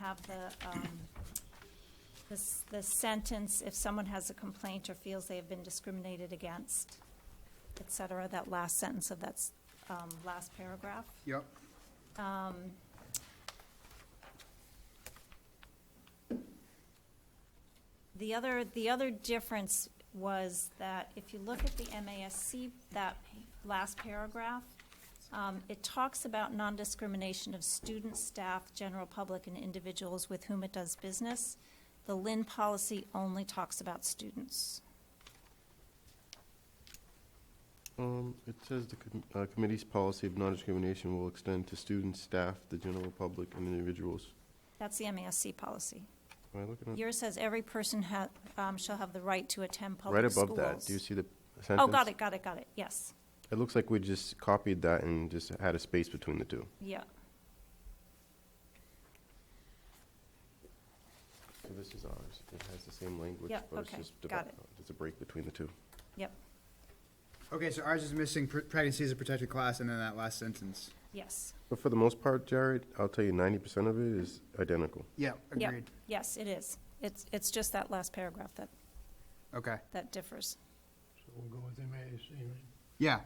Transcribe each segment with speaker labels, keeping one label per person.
Speaker 1: have the, um, this, the sentence, if someone has a complaint or feels they have been discriminated against, et cetera, that last sentence of that, s- um, last paragraph.
Speaker 2: Yep.
Speaker 1: Um, The other, the other difference was that if you look at the MASC, that last paragraph, um, it talks about non-discrimination of students, staff, general public, and individuals with whom it does business. The Lynn policy only talks about students.
Speaker 3: Um, it says the com- uh, committee's policy of non-discrimination will extend to students, staff, the general public, and individuals.
Speaker 1: That's the MASC policy.
Speaker 3: Am I looking at?
Speaker 1: Yours says every person ha, um, shall have the right to attend
Speaker 3: Right
Speaker 1: public schools.
Speaker 3: above that, do you see the
Speaker 1: Oh,
Speaker 3: sentence?
Speaker 1: got it, got it, got it, yes,
Speaker 3: It looks like we just copied that and just had a space between the two.
Speaker 1: yeah.
Speaker 3: So this is ours. It has the same language,
Speaker 1: Yeah,
Speaker 3: but it's
Speaker 1: okay,
Speaker 3: just divi-
Speaker 1: got it.
Speaker 3: uh, It's a break between the two.
Speaker 1: Yep,
Speaker 2: Okay, so ours is missing pr- pregnancy is a protected class and then that last sentence.
Speaker 1: yes.
Speaker 3: But for the most part, Jared, I'll tell you ninety percent of it is identical.
Speaker 2: Yep,
Speaker 1: Yep,
Speaker 2: agreed.
Speaker 1: Yes, it is. It's, it's just that last paragraph that,
Speaker 2: Okay.
Speaker 1: that differs.
Speaker 4: So we'll go with MASC, right?
Speaker 2: Yeah.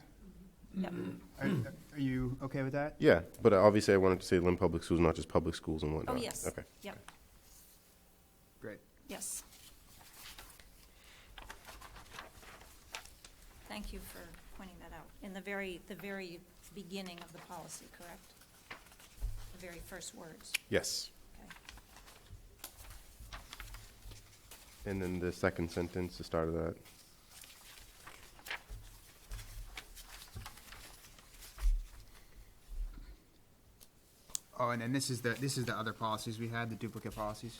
Speaker 1: Yep.
Speaker 3: Mm-hmm.
Speaker 2: Are, are you okay with that?
Speaker 3: Yeah, but obviously I wanted to say Lynn Public Schools, not just public schools and
Speaker 1: Oh,
Speaker 3: whatnot.
Speaker 1: yes.
Speaker 3: Okay.
Speaker 1: Yep,
Speaker 2: Great.
Speaker 1: yes. Thank you for pointing that out. In the very, the very beginning of the policy, correct? The very first words.
Speaker 3: Yes.
Speaker 1: Okay.
Speaker 3: And then the second sentence, the start of that.
Speaker 2: Oh, and then this is the, this is the other policies we had, the duplicate policies.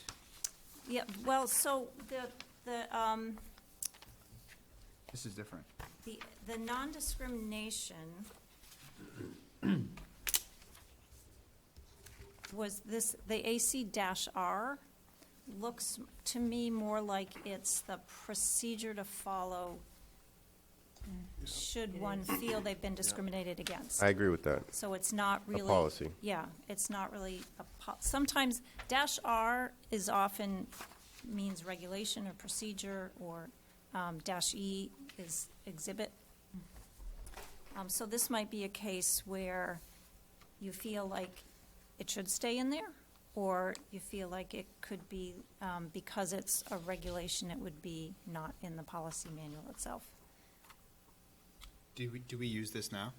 Speaker 1: Yeah, well, so the, the, um,
Speaker 2: This is different.
Speaker 1: The, the non-discrimination was this, the AC dash R looks to me more like it's the procedure to follow should one feel they've been discriminated against.
Speaker 3: I agree with that.
Speaker 1: So it's not really.
Speaker 3: policy.
Speaker 1: Yeah, it's not really a po, sometimes dash R is often means regulation or procedure, or, um, dash E is exhibit. Um, so this might be a case where you feel like it should stay in there, or you feel like it could be, um, because it's a regulation, it would be not in the policy manual itself.
Speaker 2: Do we, do we use this now?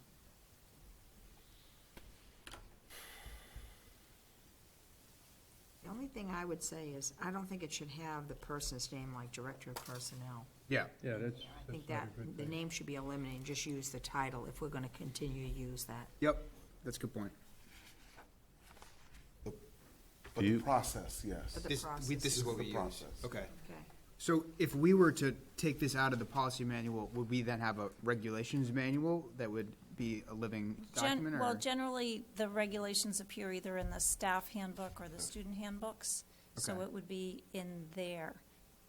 Speaker 5: The only thing I would say is, I don't think it should have the person's name like Director of Personnel.
Speaker 2: Yeah.
Speaker 4: Yeah, that's,
Speaker 5: I think
Speaker 4: that's not
Speaker 5: that,
Speaker 4: a good
Speaker 5: the
Speaker 4: thing.
Speaker 5: name should be eliminated, just use the title if we're gonna continue to use that.
Speaker 2: Yep. That's a good point.
Speaker 6: But
Speaker 3: Do
Speaker 6: the
Speaker 3: you-
Speaker 6: process, yes.
Speaker 5: But The
Speaker 2: This, we,
Speaker 5: process.
Speaker 2: this is what
Speaker 6: The
Speaker 2: we use.
Speaker 6: process.
Speaker 2: Okay.
Speaker 5: Okay.
Speaker 2: So if we were to take this out of the policy manual, would we then have a regulations manual that would be a living
Speaker 1: Gen-
Speaker 2: document or?
Speaker 1: Well, generally, the regulations appear either in the staff handbook or the student handbooks, so
Speaker 2: Okay.
Speaker 1: it would be in there.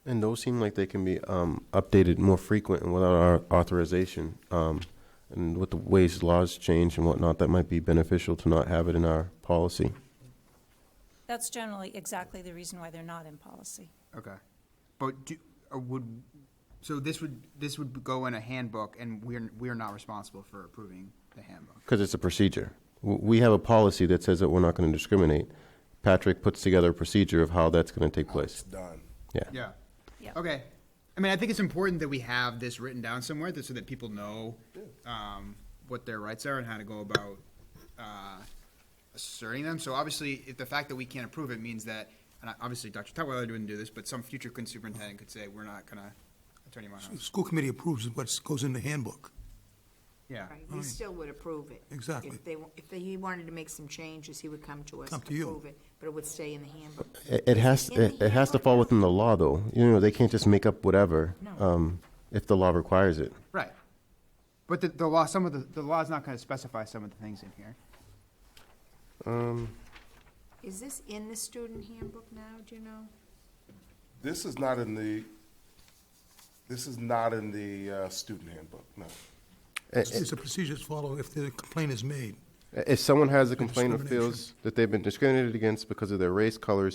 Speaker 3: And those seem like they can be um, updated more frequent and without our authorization. Um, and with the ways laws change and whatnot, that might be beneficial to not have it in our policy.
Speaker 1: That's generally exactly the reason why they're not in policy.
Speaker 2: Okay. But do, or would, so this would, this would go in a handbook and we're, we're not responsible for approving the handbook.
Speaker 3: Because it's a procedure. W- We have a policy that says that we're not going to discriminate. Patrick puts together a procedure of how that's going to take
Speaker 6: How it's
Speaker 3: place.
Speaker 6: done.
Speaker 3: Yeah.
Speaker 2: Yeah.
Speaker 1: Yeah.
Speaker 2: Okay. I mean, I think it's important that we have this written down somewhere that, so that people know, um, what their rights are and how to go about, uh, asserting them. So obviously, if the fact that we can't approve it means that, and I- obviously Dr. Tutwiler wouldn't do this, but some future con- superintendent could say, we're not gonna, Attorney
Speaker 7: The
Speaker 2: Monahan.
Speaker 7: school committee approves what goes in the handbook.
Speaker 2: Yeah.
Speaker 5: Right, we still would approve it.
Speaker 7: Exactly.
Speaker 5: If they, wa- if they- he wanted to make some changes, he would come to us.
Speaker 7: Come
Speaker 5: and
Speaker 7: to you.
Speaker 5: approve it, But it would stay in the handbook.
Speaker 3: It, it has
Speaker 5: In the
Speaker 3: it, it has to
Speaker 5: handbook
Speaker 3: fall
Speaker 5: now.
Speaker 3: within the law, though. You know, they can't just make up whatever
Speaker 5: No.
Speaker 3: um, if the law requires it.
Speaker 2: Right. But the, the law, some of the, the law's not gonna specify some of the things in here.
Speaker 5: Is this in the student handbook now, do you know?
Speaker 6: This is not in the, this is not in the uh, student handbook, no.
Speaker 7: It's it's a procedure to follow if the complaint is made.
Speaker 3: If someone has a complaint or
Speaker 7: Discrimination.
Speaker 3: feels that they've been discriminated against because of their race, color,